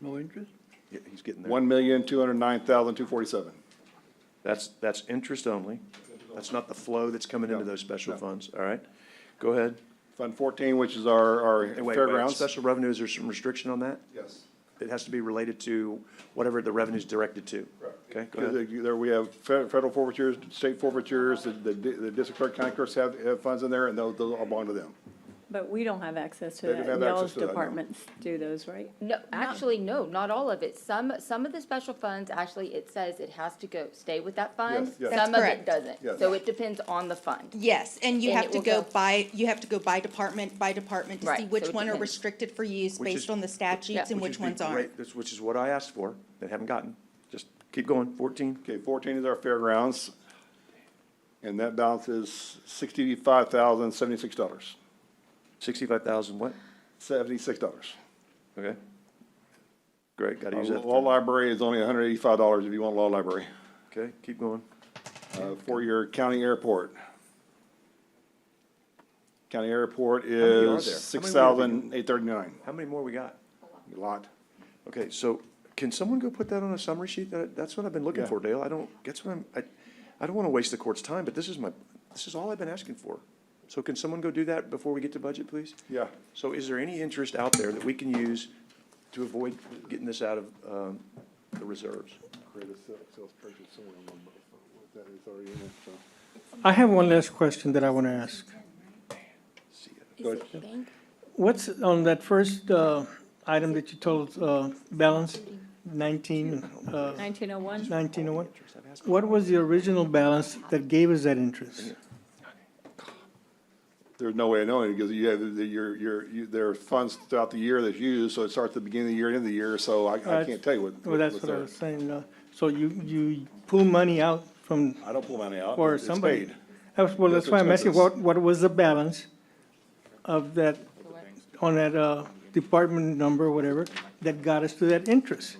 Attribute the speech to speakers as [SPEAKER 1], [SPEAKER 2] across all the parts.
[SPEAKER 1] No interest?
[SPEAKER 2] Yeah, he's getting there.
[SPEAKER 3] One million, two hundred nine thousand, two forty-seven.
[SPEAKER 2] That's, that's interest only. That's not the flow that's coming into
[SPEAKER 3] No,
[SPEAKER 2] those special
[SPEAKER 3] no.
[SPEAKER 2] funds, all right? Go ahead.
[SPEAKER 3] Fund fourteen, which is our, our
[SPEAKER 2] Hey, wait, wait.
[SPEAKER 3] fairgrounds.
[SPEAKER 2] Special revenue, is there some restriction on that?
[SPEAKER 3] Yes,
[SPEAKER 2] It has to be related to whatever the revenue's directed to. Okay, go ahead.
[SPEAKER 3] Because There we have fe- federal forfeitures, state forfeitures, the, the di- the district clerk, county clerks have, have funds in there, and those, those all belong to them.
[SPEAKER 4] But we don't have access to
[SPEAKER 3] They don't
[SPEAKER 4] that.
[SPEAKER 3] have
[SPEAKER 4] Y'all's
[SPEAKER 3] access to that, no.
[SPEAKER 4] departments do those, right?
[SPEAKER 5] No, actually, no, not all of it. Some, some of the special funds, actually, it says it has to go, stay with that fund.
[SPEAKER 3] Yes, yes. That's
[SPEAKER 5] Some of it
[SPEAKER 6] correct.
[SPEAKER 5] doesn't.
[SPEAKER 3] Yes.
[SPEAKER 5] So it depends on the fund.
[SPEAKER 6] Yes, and you
[SPEAKER 5] And
[SPEAKER 6] have
[SPEAKER 5] it
[SPEAKER 6] to
[SPEAKER 5] will
[SPEAKER 6] go
[SPEAKER 5] go-
[SPEAKER 6] by, you have to go by department, by department to
[SPEAKER 5] Right,
[SPEAKER 6] see
[SPEAKER 5] so
[SPEAKER 6] which
[SPEAKER 5] it
[SPEAKER 6] one are
[SPEAKER 5] depends.
[SPEAKER 6] restricted for use
[SPEAKER 2] Which is-
[SPEAKER 6] based on the statutes and
[SPEAKER 5] Which
[SPEAKER 6] which
[SPEAKER 2] is the
[SPEAKER 6] ones aren't.
[SPEAKER 2] great- that's- Which is what I asked for, that haven't gotten. Just keep going, fourteen.
[SPEAKER 3] Okay, fourteen is our fairgrounds, and that balance is sixty-five thousand, seventy-six dollars,
[SPEAKER 2] Sixty-five thousand what?
[SPEAKER 3] seventy-six dollars.
[SPEAKER 2] Okay. Great, gotta use that.
[SPEAKER 3] Uh, Law library is only hundred eighty-five dollars if you want law library.
[SPEAKER 2] Okay, keep going.
[SPEAKER 3] Uh, for your county airport. County airport is
[SPEAKER 2] there?
[SPEAKER 3] six
[SPEAKER 2] How many
[SPEAKER 3] thousand, eight thirty-nine,
[SPEAKER 2] How many more we got?
[SPEAKER 3] a lot.
[SPEAKER 2] Okay, so can someone go put that on a summary sheet? That, that's what I've been looking
[SPEAKER 3] Yeah.
[SPEAKER 2] for, Dale. I don't, that's what I'm, I, I don't want to waste the court's time, but this is my, this is all I've been asking for. So can someone go do that before we get to budget, please?
[SPEAKER 3] Yeah.
[SPEAKER 2] So is there any interest out there that we can use to avoid getting this out of, um, the reserves?
[SPEAKER 1] I have one last question that I want to ask.
[SPEAKER 5] Is it bank?
[SPEAKER 1] What's on that first uh, item that you told, uh, balance, 19, uh,
[SPEAKER 4] 1901?
[SPEAKER 1] 1901? What was the original balance that gave us that interest?
[SPEAKER 3] There's no way of knowing, because you have, the- your, your, you- there are funds throughout the year that's used, so it starts at the beginning of the year, end of the year, so I, I
[SPEAKER 1] That's-
[SPEAKER 3] can't tell you what.
[SPEAKER 1] Well, that's
[SPEAKER 3] what's
[SPEAKER 1] what I
[SPEAKER 3] there.
[SPEAKER 1] was saying. uh, So you, you pull money out from,
[SPEAKER 3] I don't pull money out.
[SPEAKER 1] or
[SPEAKER 3] It's
[SPEAKER 1] somebody.
[SPEAKER 3] paid.
[SPEAKER 1] That was- Well,
[SPEAKER 3] That's
[SPEAKER 1] that's why I'm asking,
[SPEAKER 3] expenses.
[SPEAKER 1] what, what was the balance of that, on that uh, department number, whatever, that got us to that interest?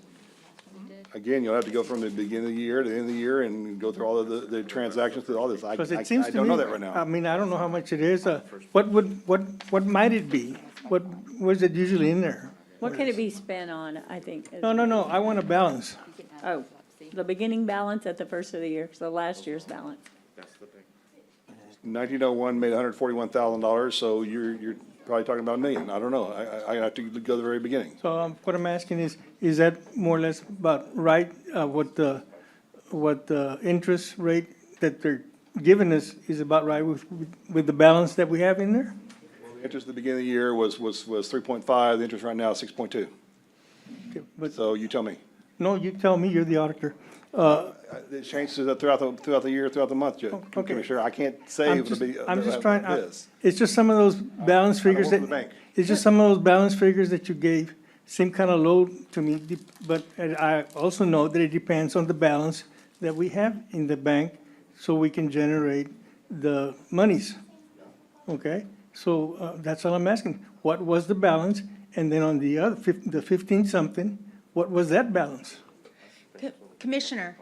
[SPEAKER 3] Again, you'll have to go from the beginning of the year to the end of the year and go through all of the, the transactions, through all this. I, I
[SPEAKER 1] Because
[SPEAKER 3] I
[SPEAKER 1] it seems to me.
[SPEAKER 3] don't know that right
[SPEAKER 1] I
[SPEAKER 3] now.
[SPEAKER 1] mean, I don't know how much it is. uh, What would, what, what might it be? What was it usually in there?
[SPEAKER 4] What can it be spent on, I think? is-
[SPEAKER 1] No, no, no, I want a balance.
[SPEAKER 4] Oh, the beginning balance at the first of the year, so last year's balance.
[SPEAKER 3] Nineteen oh one made hundred forty-one thousand dollars, so you're, you're probably talking about a million. I don't know. I, I, I have to go to the very beginning.
[SPEAKER 1] So um, what I'm asking is, is that more or less about right, uh, what the, what the interest rate that they're giving us is about right with, with the balance that we have in there?
[SPEAKER 3] Interest at the beginning of the year was, was, was three point five, the interest right now is six point two.
[SPEAKER 1] Okay, But,
[SPEAKER 3] So you tell me.
[SPEAKER 1] no, you tell me, you're the auditor.
[SPEAKER 3] Uh, It changes throughout the, throughout the year, throughout the month, Ju-
[SPEAKER 1] Oh, okay.
[SPEAKER 3] Commissioner. I can't say
[SPEAKER 1] I'm
[SPEAKER 3] it'll
[SPEAKER 1] just,
[SPEAKER 3] be.
[SPEAKER 1] I'm just
[SPEAKER 3] uh,
[SPEAKER 1] trying, I-
[SPEAKER 3] this.
[SPEAKER 1] it's just some of those balance figures
[SPEAKER 3] work
[SPEAKER 1] that,
[SPEAKER 3] for the bank.
[SPEAKER 1] it's just some of those balance figures that you gave seem kind of low to me, de- but uh, I also know that it depends on the balance that we have in the bank so we can generate the monies. Okay? So uh, that's all I'm asking. What was the balance? And then on the other, fif- the 15-something, what was that balance?
[SPEAKER 6] Co- Commissioner,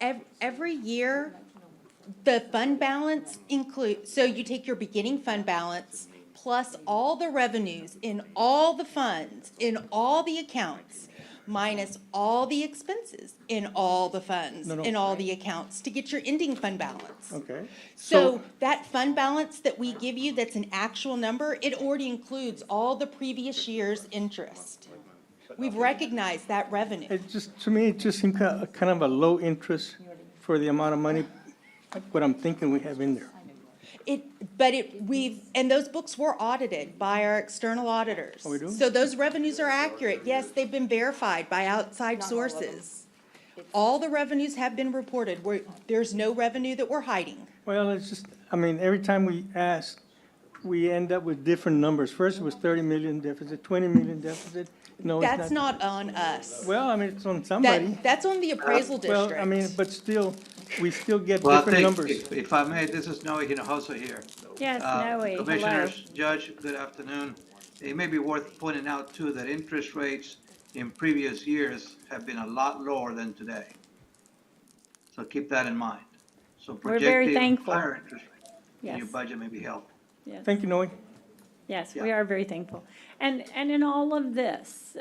[SPEAKER 6] ev- every year, the fund balance include, so you take your beginning fund balance plus all the revenues in all the funds, in all the accounts, minus all the expenses in all the funds,
[SPEAKER 1] no.
[SPEAKER 6] in all the accounts, to get your ending fund balance.
[SPEAKER 1] Okay?
[SPEAKER 6] So that fund balance that we give you, that's an actual number, it already includes all the previous year's interest. We've recognized that revenue.
[SPEAKER 1] It just, to me, it just seemed kind of kind of a low interest for the amount of money, what I'm thinking we have in there.
[SPEAKER 6] It, but it, we've, and those books were audited by our external auditors.
[SPEAKER 1] Oh, we do?
[SPEAKER 6] So those revenues are accurate. Yes, they've been verified by outside sources. All the revenues have been reported. We're, there's no revenue that we're hiding.
[SPEAKER 1] Well, it's just, I mean, every time we ask, we end up with different numbers. First it was 30 million deficit, 20 million deficit. No,
[SPEAKER 6] That's
[SPEAKER 1] it's not.
[SPEAKER 6] not on us.
[SPEAKER 1] Well, I mean, it's on somebody.
[SPEAKER 6] That, that's on the appraisal
[SPEAKER 1] Well, I mean,
[SPEAKER 6] district.
[SPEAKER 1] but still, we still get
[SPEAKER 7] Well, I
[SPEAKER 1] different
[SPEAKER 7] think
[SPEAKER 1] numbers.
[SPEAKER 7] if- If I may, this is Noe Hinojosa here.
[SPEAKER 4] Yes,
[SPEAKER 7] Uh,
[SPEAKER 4] Noe, hello.
[SPEAKER 7] Commissioners, Judge, good afternoon. It may be worth pointing out too that interest rates in previous years have been a lot lower than today. So keep that in mind. So
[SPEAKER 4] We're very
[SPEAKER 7] projecting
[SPEAKER 4] thankful.
[SPEAKER 7] higher interest rates in your
[SPEAKER 4] Yes,
[SPEAKER 7] budget may be helpful.
[SPEAKER 4] yes.
[SPEAKER 1] Thank you, Noe.
[SPEAKER 4] Yes,
[SPEAKER 7] Yeah.
[SPEAKER 4] we are very thankful. And, and in all of this,